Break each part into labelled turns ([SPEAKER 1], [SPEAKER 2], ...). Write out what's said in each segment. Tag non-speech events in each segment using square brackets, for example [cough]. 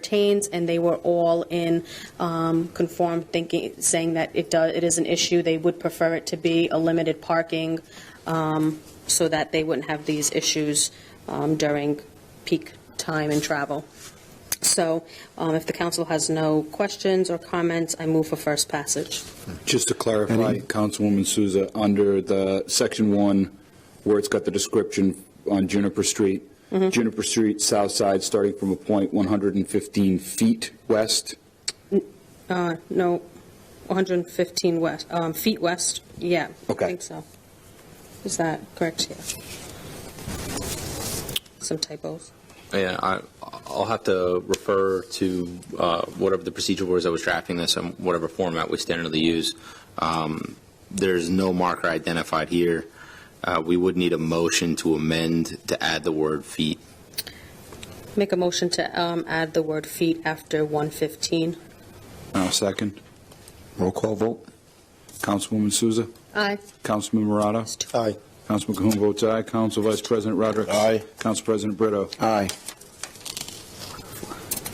[SPEAKER 1] pertains, and they were all in um, conform thinking, saying that it does, it is an issue. They would prefer it to be a limited parking um, so that they wouldn't have these issues um, during peak time and travel. So um, if the council has no questions or comments, I move for first passage.
[SPEAKER 2] Just to clarify, Councilwoman Souza, under the section one, where it's got the description on Juniper Street, Juniper Street, south side, starting from a point 115 feet west,
[SPEAKER 1] Uh, No, 115 west, um, feet west, yeah.
[SPEAKER 2] Okay.
[SPEAKER 1] I think so. Is that correct? Yeah. Some typos.
[SPEAKER 3] Yeah, I, I'll have to refer to uh, whatever the procedure was that was drafting this and whatever format we standardly use. Um, There's no marker identified here. Uh, We would need a motion to amend to add the word feet.
[SPEAKER 1] Make a motion to um, add the word feet after 115.
[SPEAKER 2] I'll second. Roll call vote. Councilwoman Souza,
[SPEAKER 1] Aye.
[SPEAKER 2] Councilman Murata,
[SPEAKER 4] Aye.
[SPEAKER 2] Councilman Cahoon votes aye, Council Vice President Rodrick.
[SPEAKER 4] Aye.
[SPEAKER 2] Council President Brito.
[SPEAKER 4] Aye.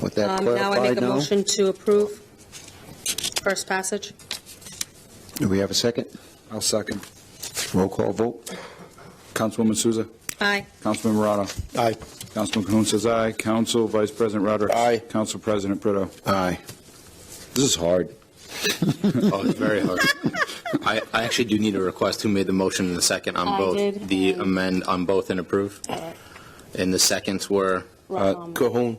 [SPEAKER 4] With that
[SPEAKER 1] Um, Now I make
[SPEAKER 4] clarified
[SPEAKER 1] a
[SPEAKER 4] now,
[SPEAKER 1] motion to approve first passage.
[SPEAKER 4] do we have a second?
[SPEAKER 2] I'll second.
[SPEAKER 4] Roll call vote?
[SPEAKER 2] Councilwoman Souza,
[SPEAKER 1] Aye.
[SPEAKER 2] Councilman Murata,
[SPEAKER 4] Aye.
[SPEAKER 2] Councilman Cahoon says aye, Council Vice President Rodrick.
[SPEAKER 4] Aye.
[SPEAKER 2] Council President Brito.
[SPEAKER 4] Aye. This is hard.
[SPEAKER 3] Oh, it's
[SPEAKER 1] [laughs]
[SPEAKER 3] very hard. I, I actually do need a request. Who made the motion in the second
[SPEAKER 1] I
[SPEAKER 3] on both?
[SPEAKER 1] did,
[SPEAKER 3] The
[SPEAKER 1] and-
[SPEAKER 3] amend on both and approve? And the seconds were,
[SPEAKER 4] Uh,
[SPEAKER 1] Um,
[SPEAKER 4] Cahoon.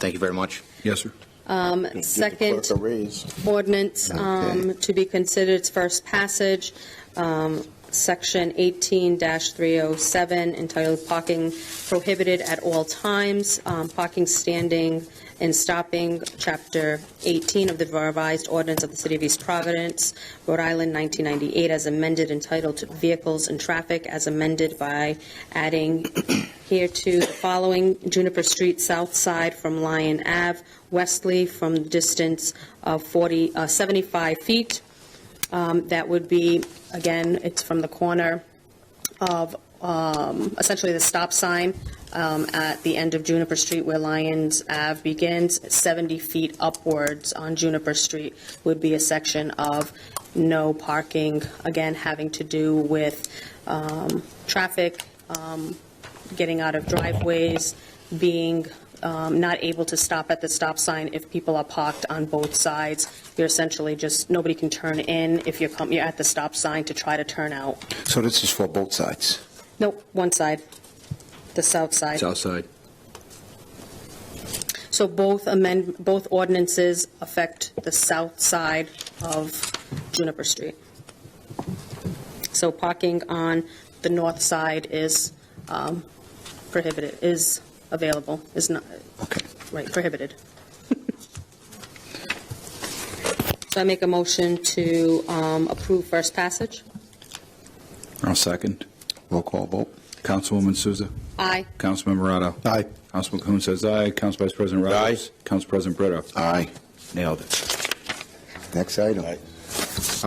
[SPEAKER 3] thank you very much.
[SPEAKER 2] Yes, sir.
[SPEAKER 1] um, Second
[SPEAKER 4] Clerk a raise.
[SPEAKER 1] ordinance um,
[SPEAKER 4] Okay.
[SPEAKER 1] to be considered its first passage, um, Section 18-307, entitled Parking Prohibited at All Times, um, Parking Standing and Stopping, Chapter 18 of the revised ordinance of the City of East Providence, Rhode Island, 1998, as amended, entitled Vehicles and Traffic, as amended by adding here to the following, Juniper Street, south side from Lion Ave, Wesley from the distance of 40, uh, 75 feet. Um, That would be, again, it's from the corner of um, essentially the stop sign um, at the end of Juniper Street where Lions Ave begins, 70 feet upwards on Juniper Street would be a section of no parking, again, having to do with um, traffic, um, getting out of driveways, being um, not able to stop at the stop sign if people are parked on both sides. You're essentially just, nobody can turn in if you're, com- you're at the stop sign to try to turn out.
[SPEAKER 4] So this is for both sides?
[SPEAKER 1] Nope, one side, the south side.
[SPEAKER 3] outside.
[SPEAKER 1] So both amend, both ordinances affect the south side of Juniper Street. So parking on the north side is um, prohibited, is available, is not,
[SPEAKER 4] Okay.
[SPEAKER 1] right, prohibited. So I make a motion to um, approve first passage.
[SPEAKER 2] I'll second.
[SPEAKER 4] Roll call vote?
[SPEAKER 2] Councilwoman Souza.
[SPEAKER 1] Aye.
[SPEAKER 2] Councilman Murata.
[SPEAKER 4] Aye.
[SPEAKER 2] Councilman Cahoon says aye. Council Vice President Rodrick. Aye. Council President Brito.
[SPEAKER 4] Aye.
[SPEAKER 2] Nailed it.
[SPEAKER 4] Next item.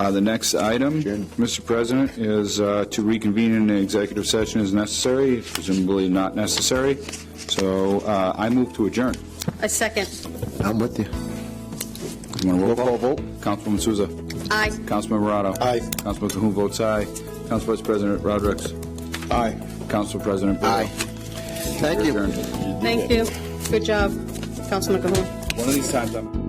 [SPEAKER 2] Uh, The next item,
[SPEAKER 4] Jim.
[SPEAKER 2] Mr. President, is uh, to reconvene in an executive session as necessary, presumably not necessary. So uh, I move to adjourn.
[SPEAKER 1] A second.
[SPEAKER 4] I'm with you.
[SPEAKER 2] You want a roll
[SPEAKER 4] Roll
[SPEAKER 2] call
[SPEAKER 4] call
[SPEAKER 2] vote? Councilwoman Souza.
[SPEAKER 1] Aye.
[SPEAKER 2] Councilman Murata.
[SPEAKER 4] Aye.
[SPEAKER 2] Councilman Cahoon votes aye. Council Vice President Rodrick.
[SPEAKER 4] Aye.
[SPEAKER 2] Council President Brito.
[SPEAKER 4] Aye. Thank you.
[SPEAKER 2] Adjourned.
[SPEAKER 1] Thank you. Good job, Councilman Cahoon.
[SPEAKER 2] One of these times, I'm...